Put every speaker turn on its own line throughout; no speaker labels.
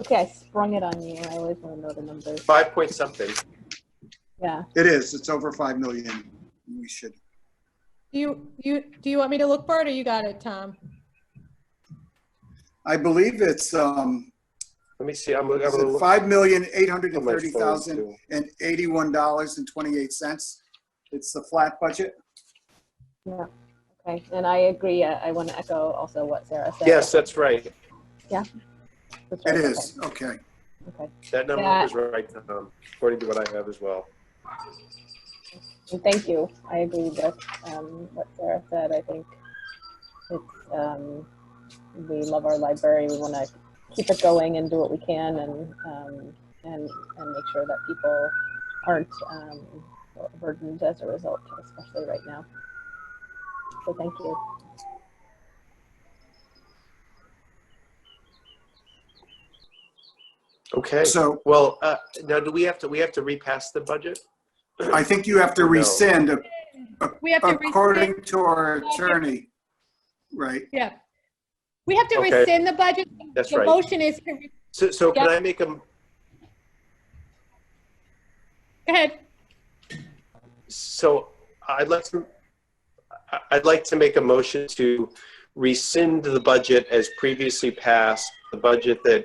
Okay, I sprung it on you. I always want to know the numbers.
Five point something.
Yeah.
It is, it's over 5 million. We should,
Do you, you, do you want me to look for it or you got it, Tom?
I believe it's, um,
Let me see, I'm, I'm
is
gonna
it
look.
five million, eight hundred
how
and
much
thirty thousand
those do.
and eighty-one dollars and twenty-eight cents. It's the flat budget.
Okay. And I agree. uh, I, I want to echo also what Sarah said.
Yes, that's right.
That's
It
right,
is, okay.
Okay. okay.
That number
That-
is right, um, according to what I have as well.
And thank you. I agree with um, what Sarah said. I think it's um, we love our library. We want to keep it going and do what we can, and um, and and make sure that people aren't um, burdened as a result, especially right now. So thank you.
Okay,
So
well, uh, now do we have to, we have to repass the budget?
I think you have to
No.
rescind a-
We have to rescind,
according to our attorney. Right,
yeah. We have to
Okay.
rescind the budget.
That's
The
right.
motion is, to re-
So, so can
Yep.
I make a,
go ahead.
so I'd like to, I- I'd like to make a motion to rescind the budget as previously passed, the budget that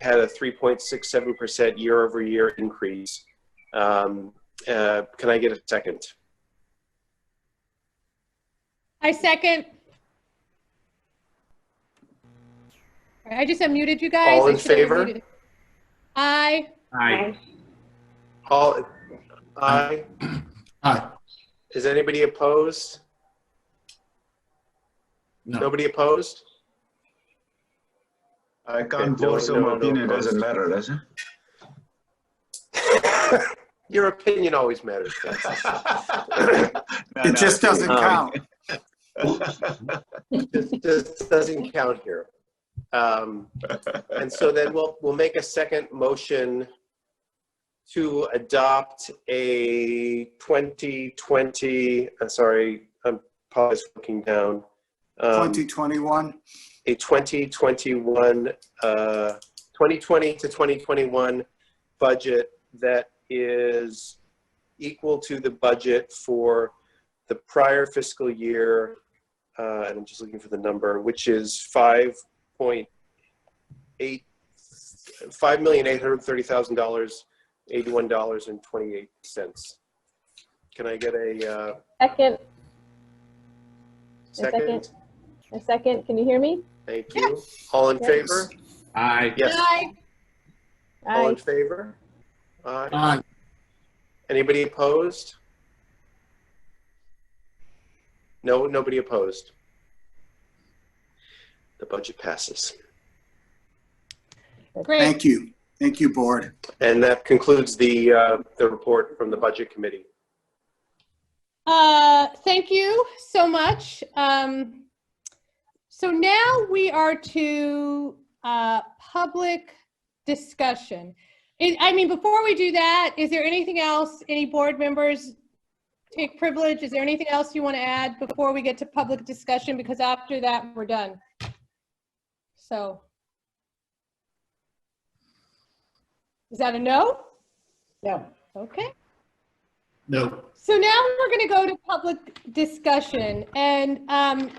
had a 3.67% year-over-year increase. Um, uh, Can I get a second?
I second. All right, I just unmuted you guys.
All
I
in
should have
favor?
unmuted. Aye.
Aye.
All, aye?
Aye.
Is anybody opposed?
No.
Nobody opposed?
I can't
Okay, no-
vote, so
no-
my
no
opinion doesn't
opposed.
matter, does it?
Your opinion always matters. Francis.
No,
it
no,
just doesn't
Um,
count.
This this doesn't count here. Um, And so then we'll, we'll make a second motion to adopt a 2020, uh, sorry, I'm pause looking down. um,
2021,
a 2021, uh, 2020 to 2021 budget that is equal to the budget for the prior fiscal year, uh, and I'm just looking for the number, which is 5.8, $5,830,000, $81.28. Can I get a uh,
Second, second.
second?
a second. Can you hear me?
Thank you. All in
Yes.
favor?
Aye.
Yes.
Aye.
All
Aye.
in favor? Aye.
Aye.
Anybody opposed? No, nobody opposed. The budget passes.
Great.
thank you, thank you, board.
And that concludes the, uh, the report from the Budget Committee.
Uh, thank you so much. Um, so now we are to uh, public discussion. I- I mean, before we do that, is there anything else, any board members take privilege? Is there anything else you want to add before we get to public discussion? Because after that, we're done. So. Is that a no?
No.
Okay.
No.
So now we're going to go to public discussion. And um,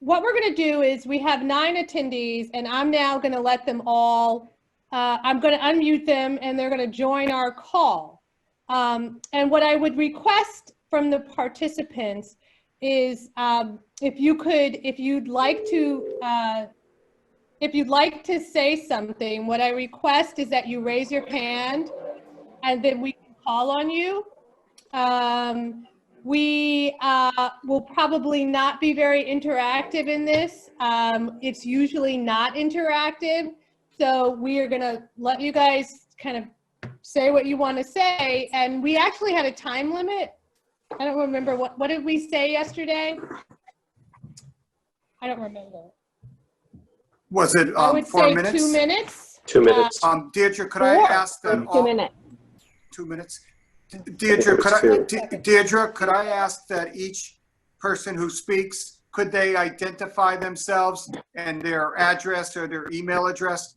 what we're going to do is we have nine attendees, and I'm now going to let them all, uh, I'm going to unmute them, and they're going to join our call. Um, And what I would request from the participants is um, if you could, if you'd like to, uh, if you'd like to say something, what I request is that you raise your hand, and then we can call on you. Um, we uh, will probably not be very interactive in this. Um, it's usually not interactive. So we are going to let you guys kind of say what you want to say. And we actually had a time limit. I don't remember what, what did we say yesterday? I don't remember.
Was it,
I
um,
would
four
say
minutes?
two minutes.
Two minutes.
Um, Deirdre, could I
Four.
ask that
Two
all,
minutes.
two minutes? Deirdre, could I,
Two.
De- Deirdre, could I ask that each person who speaks, could they identify themselves and their address or their email address?